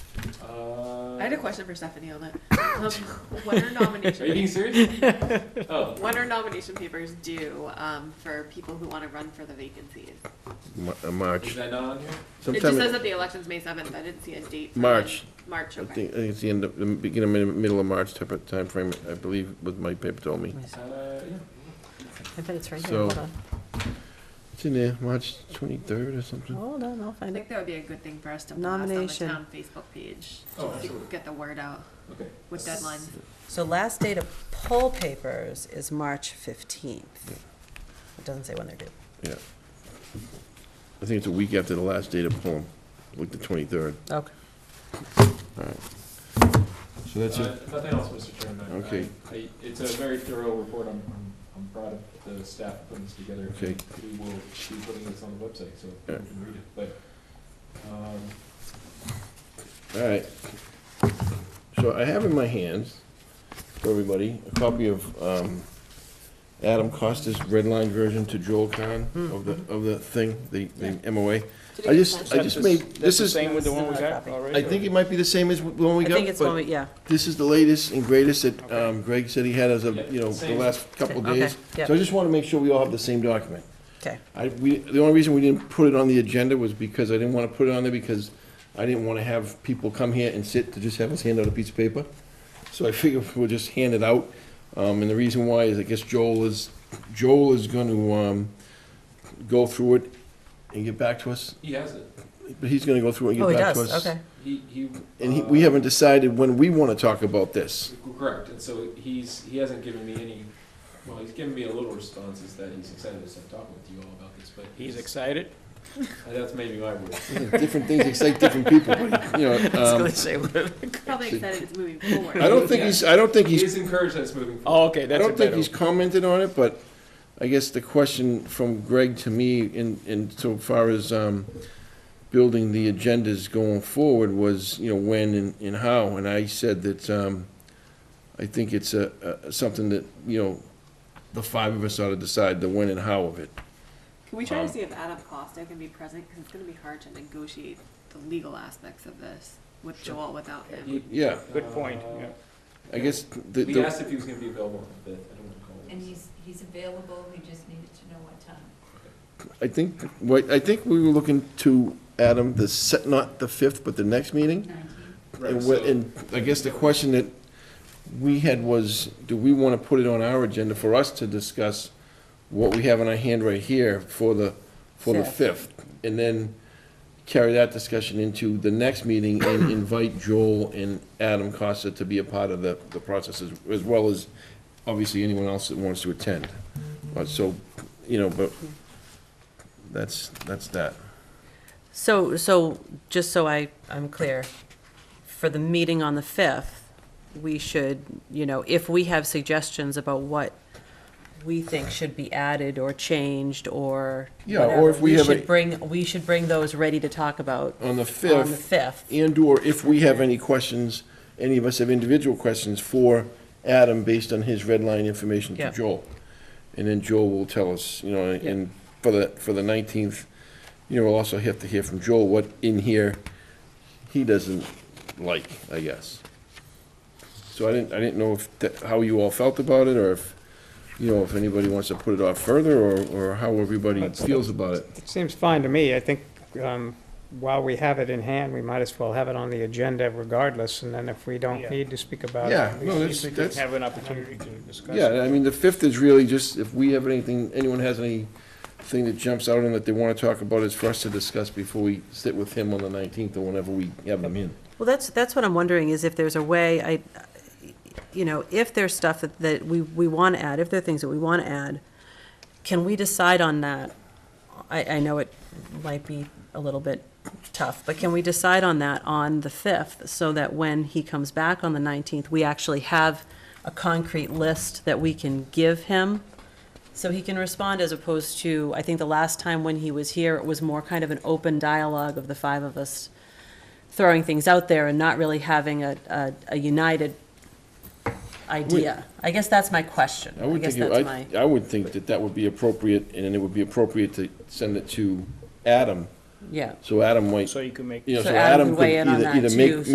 Uh, had a question for Stephanie on it. Um, when are nomination Are you being serious? Oh, when are nomination papers due um, for people who want to run for the vacancies? Ma- uh, is March. that not on here? It just Sometime, says I that the election's May seventh. I didn't see a date. for March. when. March. Okay. think, I think it's the end of, the beginning, mid- middle of March type of timeframe, I believe, what my paper told me. Uh, yeah. I bet it's right here, So- hold on, It's in there, March twenty-third or something. hold on, I'll I find it. think that would be a good thing for us to blast on the Nomination. town Facebook page. Oh, to absolutely. Get the word out Okay. with deadlines. So last day to poll papers is March 15th. It doesn't say when they're due. Yeah. I think it's a week after the last date of poem, like the twenty-third. Okay. So that's Uh, it. Nothing else, Mr. Chairman. I- Okay. I- It's a very thorough report. I'm, I'm- I'm proud of the staff for putting this together. Okay. We will be putting this on the website, so you Yeah. can read it, but, um, All right. So I have in my hands, for everybody, a copy of um, Adam Costa's red line version to Joel Kahn Hmm. of the, of the thing, the the MOA. I just, I just made, this is, Same with the one we Another got copy. already? I think it might be the same as the one we I got. think it's but when we, yeah. This is the latest and greatest that um, Greg said he had as of, you know, the Same. last couple of Okay, days. yeah. So I just want to make sure we all have the same document. Okay. I, we, the only reason we didn't put it on the agenda was because I didn't want to put it on there because I didn't want to have people come here and sit to just have us hand out a piece of paper. So I figured we'll just hand it out. Um, and the reason why is I guess Joel is, Joel is going to, um, go through it and get back to us. he has it. But he's going to go through it and Oh, he get back to us. does, okay. He, he. And he, uh, we haven't decided when we want to talk about this. Correct, and so he's, he hasn't given me any, well, he's given me a little response is that he's excited to start talking with you all about this, but. He's excited? Uh, That's maybe my word. Different things excite different people, but, you know, um, Probably excited it's moving forward. I don't think he's, I don't think he's He's encouraged us moving forward. Oh, okay, I that's a don't think better. he's commented on it, but I guess the question from Greg to me in, in so far as, um, building the agendas going forward was, you know, when and, and how, and I said that, um, I think it's a, a, something that, you know, the five of us ought to decide the when and how of it. Can we try Um, to see if Adam Costa can be present? Because it's going to be hard to negotiate the legal aspects of this with Joel without him. He- Oh. Yeah, Good point, yeah. I guess the, We the, asked if he was gonna be available on the fifth, I don't recall. And he's, he's available, we just needed to know what time. I think, what, I think we were looking to, Adam, the set, not the fifth, but the next meeting. Nineteen. Right, And, so- what- and I guess the question that we had was, do we want to put it on our agenda for us to discuss what we have in our hand right here for the, for the fifth? And then carry that discussion into the next meeting and invite Joel and Adam Costa to be a part of the, the process as, as well as obviously anyone else that wants to attend. Uh, So, you know, but that's, that's that. So, so, just so I, I'm clear, for the meeting on the 5th, we should, you know, if we have suggestions about what we think should be added or changed or Yeah, or whatever, if we have a- should bring, we should bring those ready to talk about On the on the fifth, 5th. and/or if we have any questions, any of us have individual questions for Adam based on his red line information Yeah. to Joel. And then Joel will tell us, you know, and for the, for the 19th, you know, we'll also have to hear from Joel what in here he doesn't like, I guess. So I didn't, I didn't know if, that- how you all felt about it, or if, you know, if anybody wants to put it off further, or, or how everybody That's- feels about it. It seems fine to me. I think um, while we have it in hand, we might as well have it on the agenda regardless, and then if we don't Yeah. need to speak about it. Yeah, no, that's, that's. have an opportunity to discuss. Yeah, I mean, the fifth is really just, if we have anything, anyone has anything that jumps out and that they want to talk about, it's for us to discuss before we sit with him on the nineteenth or whenever we have him in. Well, that's, that's what I'm wondering, is if there's a way, I, you know, if there's stuff that, that we, we want to add, if there are things that we want to add, can we decide on that? I, I know it might be a little bit tough, but can we decide on that on the 5th, so that when he comes back on the 19th, we actually have a concrete list that we can give him? So he can respond as opposed to, I think the last time when he was here, it was more kind of an open dialogue of the five of us throwing things out there and not really having a, a, a united idea. I guess that's my question. I would guess think, it- that's my, I, I would think that that would be appropriate, and then it would be appropriate to send it to Adam, yeah. so Adam might, So you can make. you know, So so Adam Adam can could weigh in on either, that either make, too,